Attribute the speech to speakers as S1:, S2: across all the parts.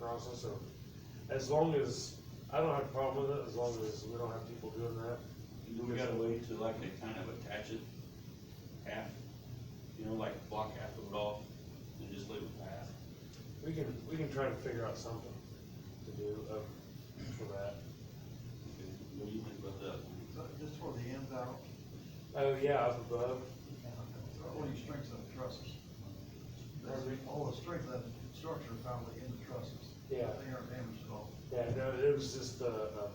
S1: process of, as long as, I don't have a problem with it, as long as we don't have people doing that.
S2: Do we got a way to like, they kind of attach it half, you know, like block half of it off and just leave it half?
S1: We can, we can try to figure out something to do, um, for that.
S2: Okay, What do you think about that?
S3: So just for the ends out,
S1: Oh, yeah, up above,
S3: all your strengths of the trusses. That's the- all the strength of the structure found in the trusses.
S1: Yeah.
S3: They aren't damaged at all,
S1: yeah, no, it was just the, um,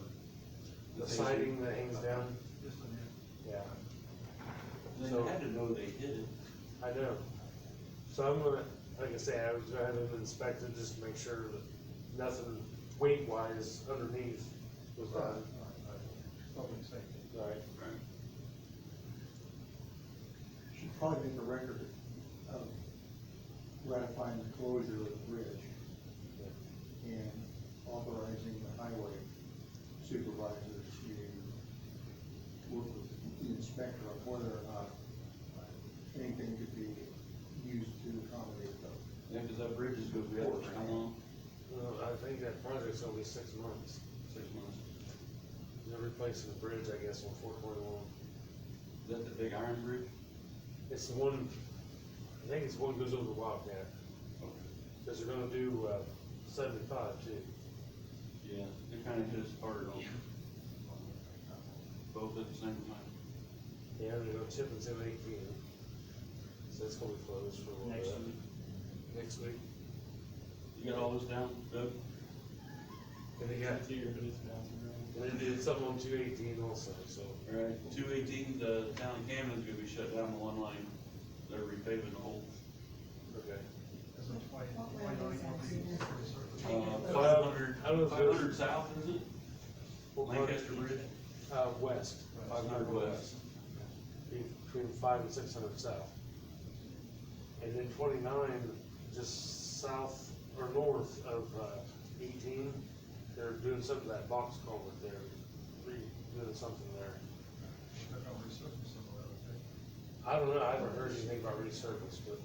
S1: the siding that hangs down,
S3: just an end.
S1: yeah, So-
S2: They had to know they did it.
S1: I know. So I'm gonna, like I say, I was gonna have them inspect it, just to make sure that nothing weight-wise underneath was done.
S3: Public safety.
S1: Right.
S2: Right.
S4: Should probably make a record of ratifying the closure of the bridge and authorizing the highway supervisor to work with the inspector on whether or not uh, anything could be used to accommodate the,
S2: Yeah, cause that bridge is good, we had it for how long?
S1: Well, I think that project's gonna be six months.
S2: Six months.
S1: They're replacing the bridge, I guess, on four twenty-one.
S2: Is that the big iron bridge?
S1: It's the one, I think it's the one that goes over the Wildcat, because they're gonna do, uh, seventy-five too.
S2: Yeah, it kinda hit us hard on both at the same time.
S1: Yeah, they're gonna chip until eighteen. So it's gonna be closed for a
S2: Next
S1: little bit. Next week.
S2: You got all this down, Doug?
S1: And they got, and they did something on two eighteen also, so.
S2: Alright, two eighteen, the town of Camden's gonna be shut down to one lane, they're repaving the whole,
S1: Okay.
S3: That's why,
S5: What
S3: why
S5: way
S3: don't
S5: is
S3: you want
S5: that?
S3: to be for the surface?
S2: uh,
S5: Well,
S2: five hundred,
S1: I don't know if
S2: five hundred south, is it?
S1: What part?
S2: Lancaster Bridge?
S1: Uh, west.
S2: Five hundred west.
S1: Between five and six hundred south. And then twenty-nine, just south or north of, uh, eighteen, they're doing some of that box culvert there, re- doing something there.
S3: They're gonna resurface some of that,
S1: I don't know, I haven't heard anything about resurface, but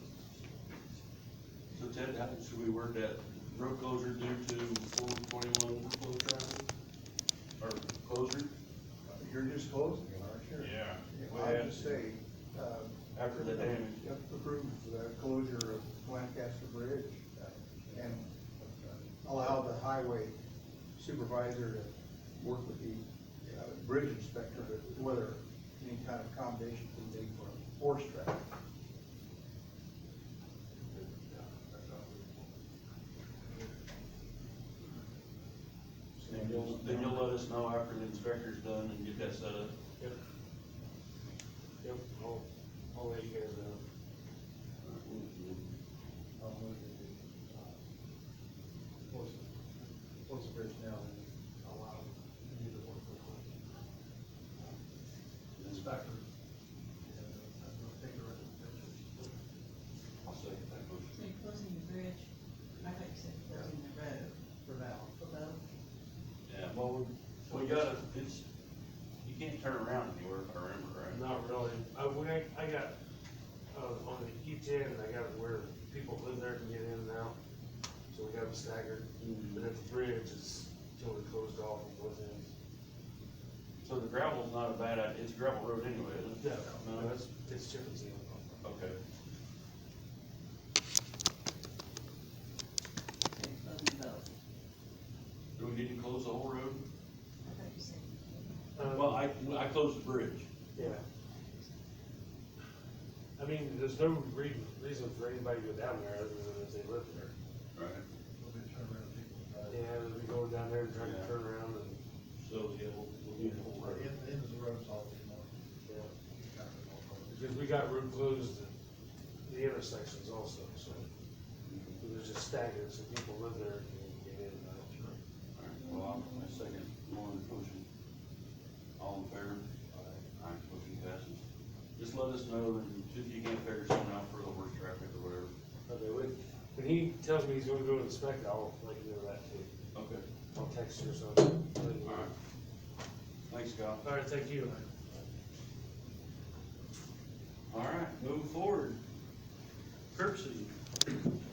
S2: So Ted, how should we word that, road closure due to four twenty-one workload traffic? Or closure?
S4: you're just closing it, aren't you?
S6: Yeah.
S4: I would say, uh,
S2: After the damage.
S4: Approve the closure of Lancaster Bridge uh, and allow the highway supervisor to work with the uh, bridge inspector to whether any kind of accommodation can be for horse traffic.
S2: Then you'll, then you'll let us know after the inspector's done and get that set up.
S1: Yep. Yep, I'll, I'll let you guys know.
S3: uh, close, close the bridge now and allow them to do the work. Inspector. Yeah, I'm gonna take a look at the pictures.
S2: I'll second that motion.
S5: So you're closing the bridge, I thought you said closing the road
S3: For now.
S5: for both,
S2: Yeah, well, we, we gotta, it's, you can't turn around anywhere if I remember right.
S1: Not really, I, when I, I got, uh, on the east end, I got where people live there can get in and out, so we got them staggered. But at the bridge, it's totally closed off and goes in.
S2: So the gravel's not a bad idea, it's a gravel road anyway, isn't it?
S1: No, it's, it's chip and seal.
S2: Okay.
S5: so you're closing both,
S2: Do we need to close the whole road?
S5: I thought you said.
S1: Um,
S2: Well, I, I closed the bridge.
S1: Yeah. I mean, there's no re- reason for anybody to go down there other than if they live there.
S2: Right.
S3: We'll be turning around people.
S1: Yeah, we go down there and try to
S2: Yeah.
S1: turn around and,
S2: So, yeah, we'll, we'll do the whole road.
S3: In, in the roads all the time.
S1: yeah.
S3: Kind of all the time.
S1: Because we got road closed at the intersections also, so it was just staggered, so people live there and get in uh, and out.
S2: Alright, well, I'll, I second Lauren's motion. All in favor? Aye. motion passes. Just let us know and if you can't figure something out for the worst traffic or whatever.
S1: Okay, when, when he tells me he's gonna go inspect, I'll let you know that too.
S2: Okay.
S1: I'll text you or something. let you know.
S2: Alright. Thanks, Scott.
S1: All right, thank you.
S2: Alright, moving forward. Curbside.